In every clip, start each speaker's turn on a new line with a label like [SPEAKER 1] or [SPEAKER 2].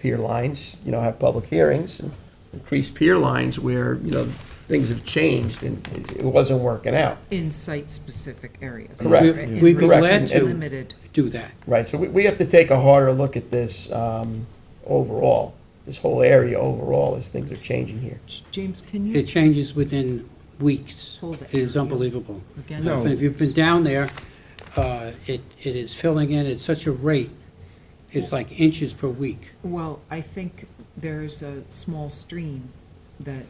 [SPEAKER 1] pier lines, you know, have public hearings and increase pier lines where, you know, things have changed and it- it wasn't working out.
[SPEAKER 2] in site-specific areas.
[SPEAKER 1] Correct.
[SPEAKER 2] right?
[SPEAKER 1] We'd be
[SPEAKER 2] And
[SPEAKER 1] glad
[SPEAKER 2] restrict-
[SPEAKER 1] to.
[SPEAKER 2] Limited.
[SPEAKER 3] do that.
[SPEAKER 1] Right, so we, we have to take a harder look at this um, overall, this whole area overall, as things are changing here.
[SPEAKER 2] J- James, can
[SPEAKER 3] It
[SPEAKER 2] you,
[SPEAKER 3] changes within weeks.
[SPEAKER 2] Hold it.
[SPEAKER 3] It is unbelievable.
[SPEAKER 2] Again? No.
[SPEAKER 3] If you've been down there, uh, it, it is filling in at such a rate, it's like inches per week.
[SPEAKER 2] well, I think there's a small stream that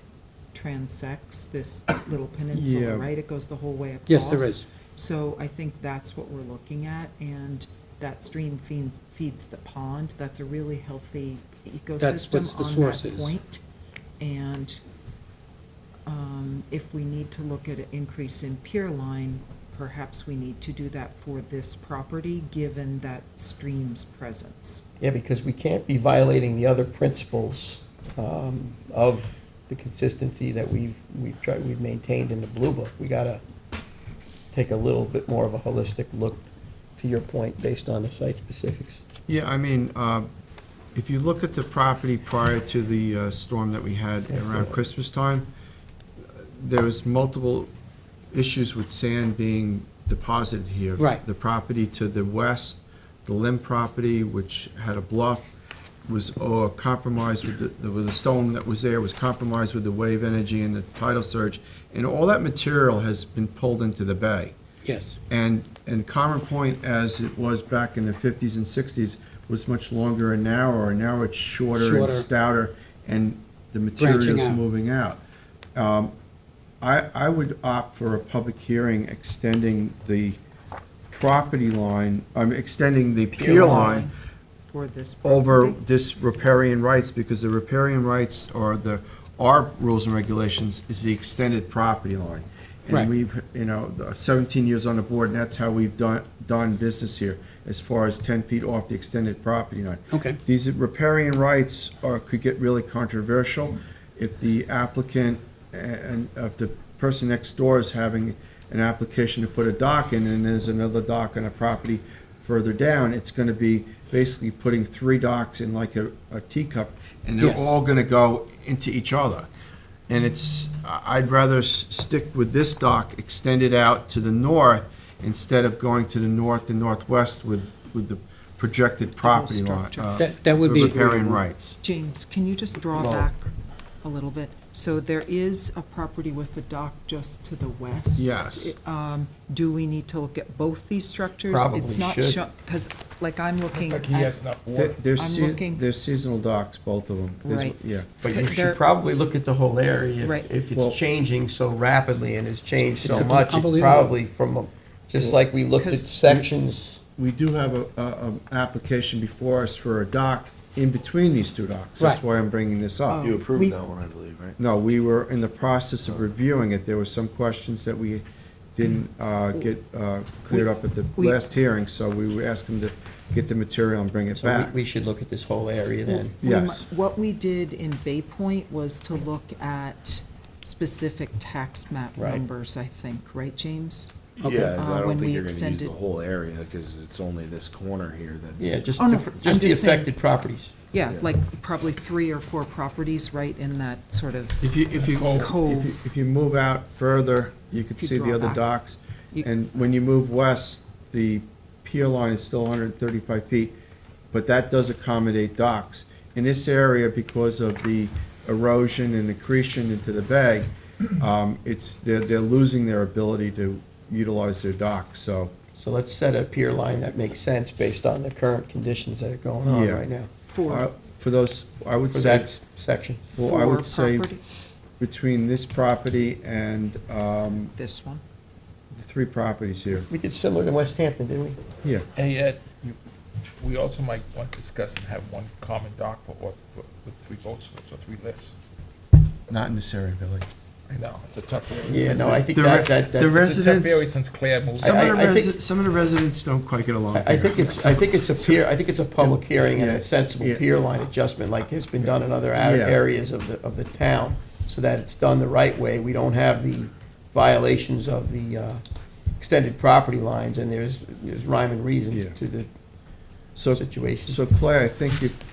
[SPEAKER 2] transects this little peninsula, right? It goes the whole way across.
[SPEAKER 3] Yes, there is.
[SPEAKER 2] So I think that's what we're looking at, and that stream feeds, feeds the pond. That's a really healthy
[SPEAKER 3] That's
[SPEAKER 2] ecosystem
[SPEAKER 3] what the
[SPEAKER 2] on
[SPEAKER 3] source
[SPEAKER 2] that
[SPEAKER 3] is.
[SPEAKER 2] point. And um, if we need to look at an increase in pier line, perhaps we need to do that for this property, given that stream's presence.
[SPEAKER 1] Yeah, because we can't be violating the other principles um, of the consistency that we've, we've tried, we've maintained in the Blue Book. We gotta take a little bit more of a holistic look, to your point, based on the site specifics.
[SPEAKER 4] Yeah, I mean, uh, if you look at the property prior to the uh, storm that we had around Christmas time, there was multiple issues with sand being deposited here.
[SPEAKER 3] Right.
[SPEAKER 4] The property to the west, the Lim property, which had a bluff, was uh, compromised with the, with the stone that was there, was compromised with the wave energy and the tidal surge. And all that material has been pulled into the bay.
[SPEAKER 3] Yes.
[SPEAKER 4] And, and Common Point, as it was back in the fifties and sixties, was much longer and narrower, and now it's shorter and
[SPEAKER 3] Shorter.
[SPEAKER 4] stouter, and the
[SPEAKER 3] Branching
[SPEAKER 4] material's
[SPEAKER 3] out.
[SPEAKER 4] moving out. Um, I, I would opt for a public hearing extending the property line, I'm extending the pier line
[SPEAKER 2] For this property.
[SPEAKER 4] over this riparian rights, because the riparian rights or the, our rules and regulations is the extended property line.
[SPEAKER 3] Right.
[SPEAKER 4] And we've, you know, the seventeen years on the board, and that's how we've done, done business here, as far as ten feet off the extended property line.
[SPEAKER 3] Okay.
[SPEAKER 4] These riparian rights are, could get really controversial if the applicant and, if the person next door is having an application to put a dock in, and there's another dock on a property further down, it's gonna be basically putting three docks in like a, a teacup, and they're
[SPEAKER 3] Yes.
[SPEAKER 4] all gonna go into each other. And it's, I- I'd rather s- stick with this dock, extend it out to the north, instead of going to the north and northwest with, with the projected property line.
[SPEAKER 2] structure.
[SPEAKER 4] uh,
[SPEAKER 3] That- that would be
[SPEAKER 4] Riparian
[SPEAKER 3] agreeable.
[SPEAKER 4] rights.
[SPEAKER 2] James, can you just draw
[SPEAKER 1] No.
[SPEAKER 2] back a little bit? So there is a property with the dock just to the west.
[SPEAKER 4] Yes.
[SPEAKER 2] Um, Do we need to look at both these structures?
[SPEAKER 1] Probably should.
[SPEAKER 2] Because, like, I'm looking
[SPEAKER 5] Like he has
[SPEAKER 2] at,
[SPEAKER 5] enough
[SPEAKER 4] They're-
[SPEAKER 5] water.
[SPEAKER 4] They're,
[SPEAKER 2] I'm
[SPEAKER 4] sea-
[SPEAKER 2] looking-
[SPEAKER 4] they're seasonal docks, both of them. There's-
[SPEAKER 2] Right.
[SPEAKER 4] Yeah.
[SPEAKER 1] But you
[SPEAKER 2] There-
[SPEAKER 1] should probably look at the whole area if-
[SPEAKER 2] Right.
[SPEAKER 1] if
[SPEAKER 4] Well-
[SPEAKER 1] it's changing so rapidly and has changed so
[SPEAKER 3] It's
[SPEAKER 1] much. It
[SPEAKER 3] unbelievable.
[SPEAKER 1] probably from, a- just like we looked at
[SPEAKER 2] 'Cause-
[SPEAKER 1] sections.
[SPEAKER 4] We do have a, a, a application before us for a dock in between these two docks. That's
[SPEAKER 3] Right.
[SPEAKER 4] why I'm bringing this up.
[SPEAKER 5] You
[SPEAKER 2] We-
[SPEAKER 5] approved that one, I believe, right?
[SPEAKER 4] No, we were in the process of reviewing it. There were some questions that we didn't uh, get uh, cleared up at the
[SPEAKER 2] We-
[SPEAKER 4] last hearing, so we were asking to get the material and bring it
[SPEAKER 1] So
[SPEAKER 4] back.
[SPEAKER 1] we, we should look at this whole area then.
[SPEAKER 2] we mi-
[SPEAKER 4] Yes.
[SPEAKER 2] what we did in Bay Point was to look at specific tax map
[SPEAKER 1] Right.
[SPEAKER 2] numbers, I think, right, James?
[SPEAKER 3] Okay.
[SPEAKER 5] Yeah,
[SPEAKER 2] Uh,
[SPEAKER 5] I
[SPEAKER 2] when
[SPEAKER 5] don't
[SPEAKER 2] we
[SPEAKER 5] think you're gonna use
[SPEAKER 2] extended-
[SPEAKER 5] the whole area, because it's only this corner here that's.
[SPEAKER 1] Yeah, just,
[SPEAKER 2] Oh, no,
[SPEAKER 1] the-
[SPEAKER 2] I'm
[SPEAKER 1] just the
[SPEAKER 2] just saying-
[SPEAKER 1] affected properties.
[SPEAKER 2] Yeah, like, probably three or four properties right in that sort of,
[SPEAKER 4] If you, if you, if you-
[SPEAKER 2] Cove.
[SPEAKER 4] if you move out further, you could
[SPEAKER 2] If you
[SPEAKER 4] see the
[SPEAKER 2] draw
[SPEAKER 4] other
[SPEAKER 2] back.
[SPEAKER 4] docks.
[SPEAKER 2] You-
[SPEAKER 4] And when you move west, the pier line is still 135 feet, but that does accommodate docks. In this area, because of the erosion and accretion into the bay, um, it's, they're, they're losing their ability to utilize their docks, so.
[SPEAKER 1] So let's set a pier line that makes sense based on the current conditions that are going on
[SPEAKER 4] Yeah.
[SPEAKER 1] right now
[SPEAKER 4] uh,
[SPEAKER 2] four,
[SPEAKER 4] For those, I would
[SPEAKER 1] for
[SPEAKER 4] say,
[SPEAKER 1] that s- section.
[SPEAKER 4] well, I
[SPEAKER 2] four
[SPEAKER 4] would say
[SPEAKER 2] property,
[SPEAKER 4] between this property and um,
[SPEAKER 2] this one.
[SPEAKER 4] the three properties here,
[SPEAKER 1] We did similar to West Hampton, didn't we?
[SPEAKER 4] yeah.
[SPEAKER 5] And yet, you- we also might want to discuss and have one common dock for, all- for, with three boats or three lifts.
[SPEAKER 4] Not in this area, Billy.
[SPEAKER 5] I know, it's a tough area.
[SPEAKER 1] Yeah, no, I think
[SPEAKER 4] The
[SPEAKER 1] that,
[SPEAKER 4] re-
[SPEAKER 1] that,
[SPEAKER 4] the
[SPEAKER 1] that,
[SPEAKER 4] re-
[SPEAKER 5] It's a tough
[SPEAKER 4] residents-
[SPEAKER 5] area since Claire moved.
[SPEAKER 4] Some of the
[SPEAKER 1] I- I think-
[SPEAKER 4] resi- some of the residents don't quite get along.
[SPEAKER 1] I I
[SPEAKER 4] here.
[SPEAKER 1] think it's, I think it's a pier, I think it's a public hearing and
[SPEAKER 4] Yeah.
[SPEAKER 1] a sensible
[SPEAKER 4] Yeah.
[SPEAKER 1] pier line adjustment like has been done in other a-
[SPEAKER 4] Yeah.
[SPEAKER 1] areas of the, of the town, so that it's done the right way. We don't have the violations of the uh, extended property lines, and there's, there's rhyme and
[SPEAKER 4] Yeah.
[SPEAKER 1] reason to the
[SPEAKER 4] So,
[SPEAKER 1] situation.
[SPEAKER 4] so Clay, I think if